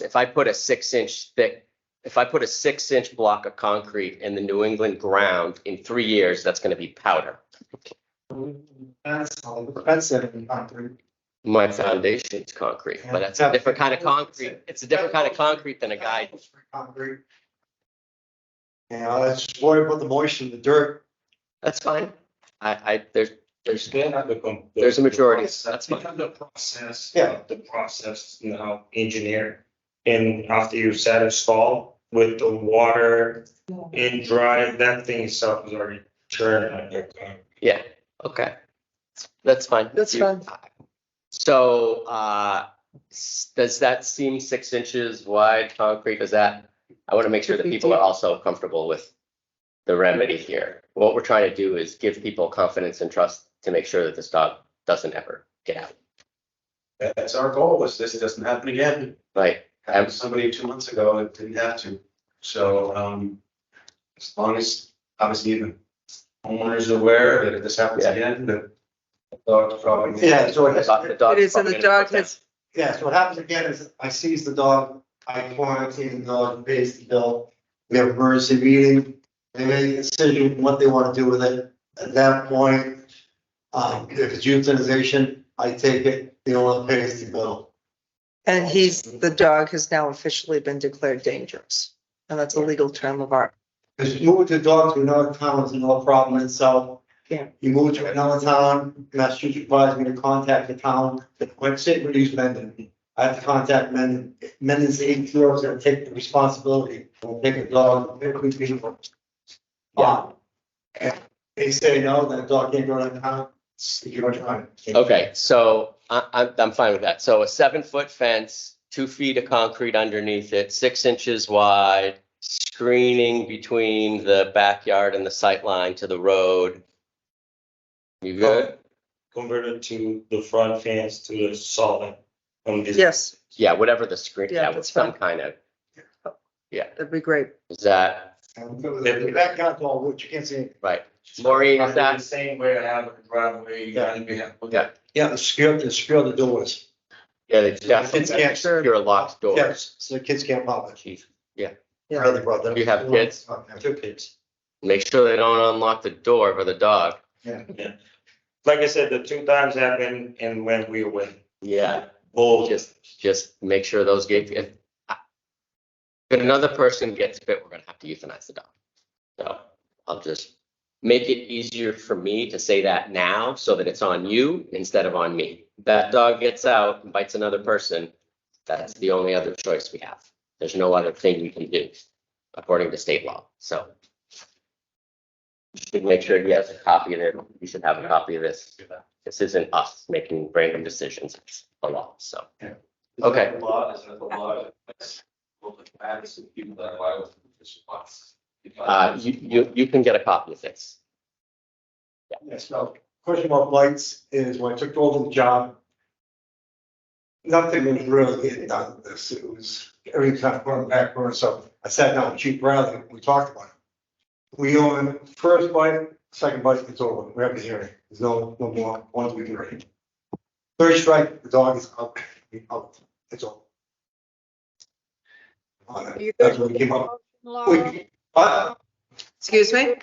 if I put a six inch thick, if I put a six inch block of concrete in the New England ground in three years, that's gonna be powder. That's all, that's it, concrete. My foundation's concrete, but that's a different kind of concrete. It's a different kind of concrete than a guy. Concrete. Yeah, I just worry about the moisture in the dirt. That's fine. I, I, there's, there's, Then I become. There's a majority, that's fine. The process. uh, Yeah. The process now engineer. And after you set a stall with the water and dry, that thing itself is already turned. I think, uh, yeah, okay. That's fine. That's You- fine. So, uh, s- does that seem six inches wide concrete? Does that, I want to make sure that people are also comfortable with the remedy here. What we're trying to do is give people confidence and trust to make sure that this dog doesn't ever get out. That's our goal, is this doesn't happen again. Like, Had somebody two months ago, it didn't have to. So, um, as long as, obviously, the homeowner's are aware that if this happens Yeah. again, the dog's probably. Yeah, so the it, dog- the dog's It is, and probably the gonna dog put down. has, yeah, so what happens again is I seize the dog, I quarantine the dog, pays the bill. We have emergency meeting, they make a decision what they want to do with it. At that point, um, if it's euthanization, I take it, the owner pays the bill. and he's, the dog has now officially been declared dangerous. And that's a legal term of art. Because you move the dog to another town is another problem in itself. Yeah. You move to another town, Massachusetts advised me to contact the town, that went sit with these Mendon. I have to contact Mendon, Mendon's the ATO is gonna take the responsibility, will take the dog, it could be. Yeah. They say no, that dog can't go to that town, you don't try. Okay, so I, I'm, I'm fine with that. So a seven foot fence, two feet of concrete underneath it, six inches wide, screening between the backyard and the sight line to the road. Oh. You good? Oh, Converted to the front fence to the solid. Um, on this- Yes, Yeah, whatever the screen, Yeah, yeah, with that's some fine. kind of, that'd be great. is that, That got all wood, you can't see. right? Maureen, is Probably the that, Same way I have a driveway, Yeah. and we have. Yeah. Yeah, the secure, the secure the doors. yeah, it's Kids definitely, can't. you're locked doors. Yes, So the kids can't pop it. Jeez. Yeah. Brother, brother. You have kids? I have Two kids. Make sure they don't unlock the door for the dog. Like I said, the two times happened and when we win. Yeah. Both. Just, just make sure those get, if, if another person gets bit, we're gonna have to euthanize the dog. So I'll just make it easier for me to say that now so that it's on you instead of on me. That dog gets out and bites another person, that's the only other choice we have. There's no other thing we can do according to state law, so. you Should make sure he has a copy of it. You should have a copy of this. This isn't us making random decisions, it's a law, so. Is that Okay. the Law, is that the law? That's public advocacy, people that violate this law. Uh, you, you, you can get a copy of this. Yes, now, question about lights is when I took over the job. Nothing was really getting done with this, it was every time going backward, so I sat down with Chief Bradley, we talked about it. We own first bite, second bite, it's over, we have a hearing, there's no, no more, once we can read. Third strike, the dog is out, out, it's over. Uh, That's what we came up, Laura, we, uh, Excuse me?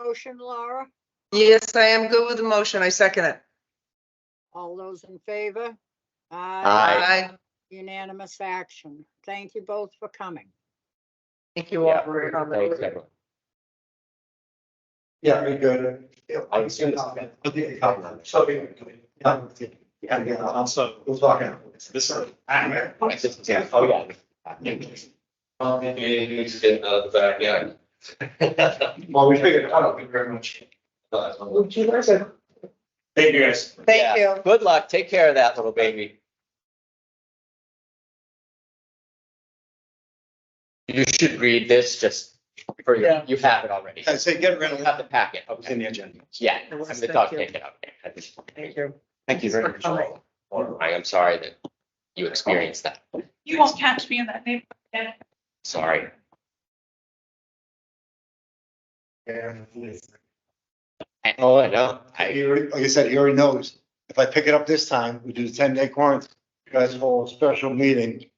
motion, Laura, Yes, I am good with the motion. I second it. all those in favor? Aye. Unanimous action. Thank you both for coming. Thank you all for your Thanks, comments. everyone. Yeah, we good. I was gonna say- Yeah, yeah, also, we'll talk now. This is. Yeah. Oh, yeah. in the backyard. Well, we figured, I don't, Thank you very much. Thank you guys. Thank you. Good luck. Take care of that little baby. You should read this just for your, Yeah. you have it already. I say get rid You have the packet. Oh, It's in the agenda. Yeah, It I'm was, the thank dog you. taken out. I just- Thank you. Thank you very Thanks for much. I am sorry that you experienced that. You won't catch me in that neighborhood. again. Sorry. I- Oh, I know. I, he already- like I said, he already knows, if I pick it up this time, we do the ten day quarantine. You guys hold a special meeting